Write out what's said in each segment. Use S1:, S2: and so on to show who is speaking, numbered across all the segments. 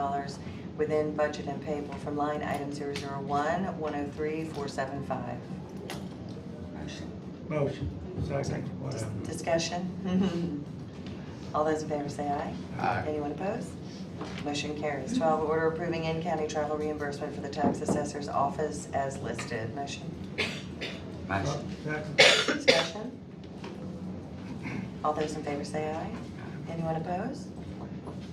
S1: dollars within budget and payable from line item zero zero one, one oh three, four seven five.
S2: Motion.
S3: Motion, second, whatever.
S1: Discussion? All those in favor say aye.
S4: Aye.
S1: Anyone opposed? Motion carries. Twelve, order approving in-county travel reimbursement for the tax assessor's office as listed. Motion?
S2: Motion.
S3: Second,
S1: Discussion? All those in favor say aye. Anyone opposed?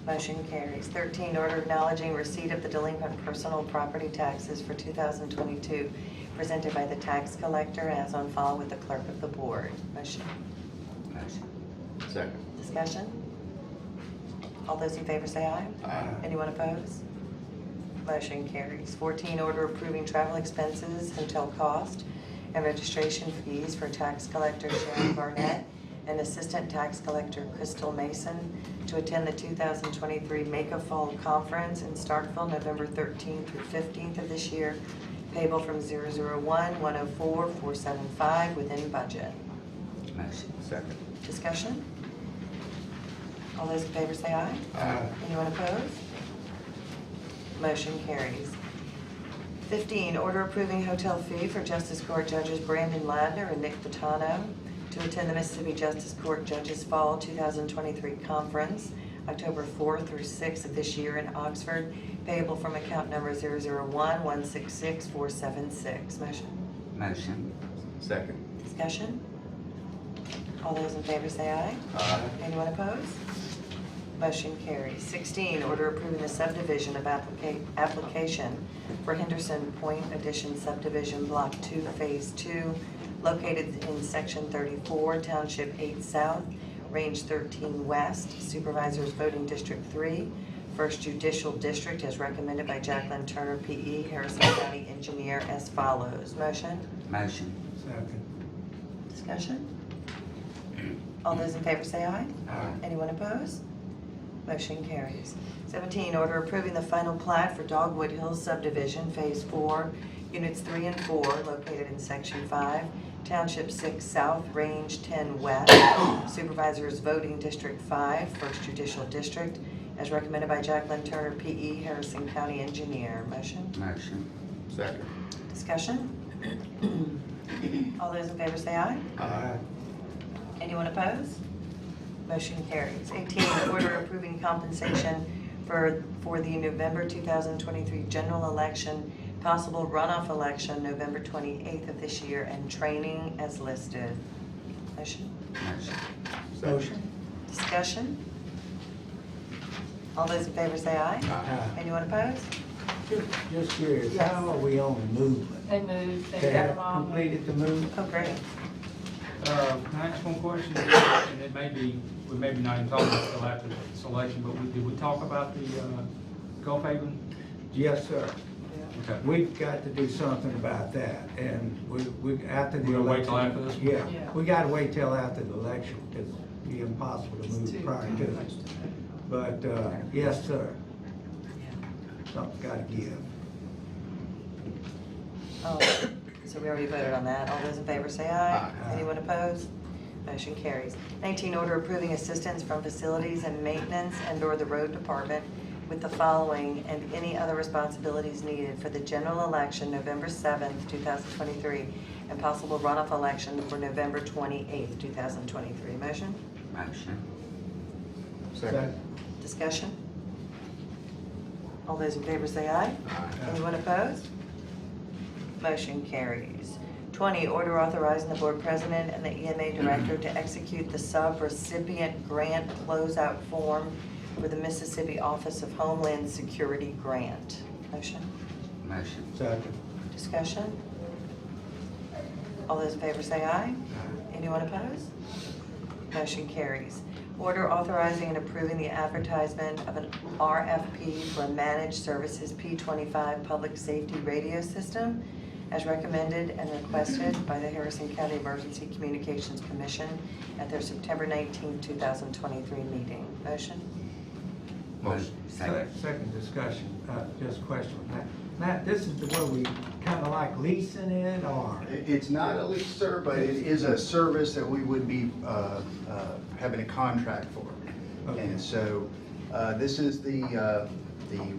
S1: Motion carries. 13, order acknowledging receipt of the delinquent personal property taxes for 2022 presented by the tax collector as on file with the clerk of the board. Motion?
S2: Motion.
S4: Second.
S1: Discussion? All those in favor say aye.
S4: Aye.
S1: Anyone opposed? Motion carries. 14, order approving travel expenses, hotel cost, and registration fees for tax collector Sharon Barnett and assistant tax collector Crystal Mason to attend the 2023 Make a Fall Conference in Starkville, November 13th through 15th of this year, payable from 001-104-475 within budget.
S2: Motion.
S4: Second.
S1: Discussion? All those in favor say aye.
S4: Aye.
S1: Anyone opposed? Motion carries. 15, order approving hotel fee for Justice Court Judges Brandon Ladner and Nick Vitano to attend the Mississippi Justice Court Judges Fall 2023 Conference, October 4th through 6th of this year in Oxford, payable from account number 001166476. Motion?
S2: Motion.
S4: Second.
S1: Discussion? All those in favor say aye.
S4: Aye.
S1: Anyone opposed? Motion carries. 16, order approving the subdivision of applica- application for Henderson Point Addition subdivision, Block 2, Phase 2, located in Section 34, Township 8 South, Range 13 West, Supervisors Voting District 3, First Judicial District, as recommended by Jacqueline Turner, P.E., Harrison County Engineer, as follows. Motion?
S2: Motion.
S3: second.
S1: Discussion? All those in favor say aye.
S3: Aye.
S1: Anyone opposed? Motion carries. 17, order approving the final plat for Dogwood Hills subdivision, Phase 4, Units 3 and 4, located in Section 5, Township 6 South, Range 10 West, Supervisors Voting District 5, First Judicial District, as recommended by Jacqueline Turner, P.E., Harrison County Engineer. Motion?
S2: Motion.
S4: Second.
S1: Discussion? All those in favor say aye.
S3: Aye.
S1: Anyone opposed? Motion carries. 18, order approving compensation for, for the November 2023 general election, possible runoff election, November 28th of this year, and training as listed. Motion?
S2: Motion.
S3: Motion.
S1: Discussion? All those in favor say aye.
S3: Aye.
S1: Anyone opposed?
S3: Just- Just curious,
S1: Yes.
S3: how are we on movement?
S5: They moved, they
S3: They
S5: got
S3: have
S5: them all.
S3: completed the move?
S1: Oh, great.
S6: Uh, Can I ask one question? And it may be, we may be not even talking about it until after the selection, but we, did we talk about the uh, Gulf Haven?
S3: Yes, sir.
S6: Okay.
S3: We've got to do something about that, and we, we, after the election.
S6: We're gonna wait till after this one?
S3: Yeah,
S5: Yeah.
S3: we gotta wait till after the election, because it'd be impossible to
S5: It's
S3: move
S5: too-
S3: prior to it. But, uh, yes, sir. Something's gotta give.
S1: Oh, so we already voted on that. All those in favor say aye.
S3: Aye.
S1: Anyone opposed? Motion carries. 19, order approving assistance from facilities and maintenance and/or the road department with the following and any other responsibilities needed for the general election November 7th, 2023, and possible runoff election for November 28th, 2023. Motion?
S2: Motion.
S4: Second.
S1: Discussion? All those in favor say aye.
S4: Aye.
S1: Anyone opposed? Motion carries. 20, order authorizing the board president and the EMA director to execute the sub-recipient grant closeout form for the Mississippi Office of Homeland Security Grant. Motion?
S2: Motion.
S3: Second.
S1: Discussion? All those in favor say aye. Anyone opposed? Motion carries. Order authorizing and approving the advertisement of an RFP for Managed Services P25 Public Safety Radio System as recommended and requested by the Harrison County Emergency Communications Commission at their September 19, 2023 meeting. Motion?
S4: Motion.
S2: Second.
S3: Sec- Second discussion, uh, just question. Matt, Matt, this is the way we kind of like leasing it or?
S7: It- It's not a lease, sir, but it is a service that we would be uh, uh, having a contract for.
S3: Okay.
S7: And so uh, this is the, uh, the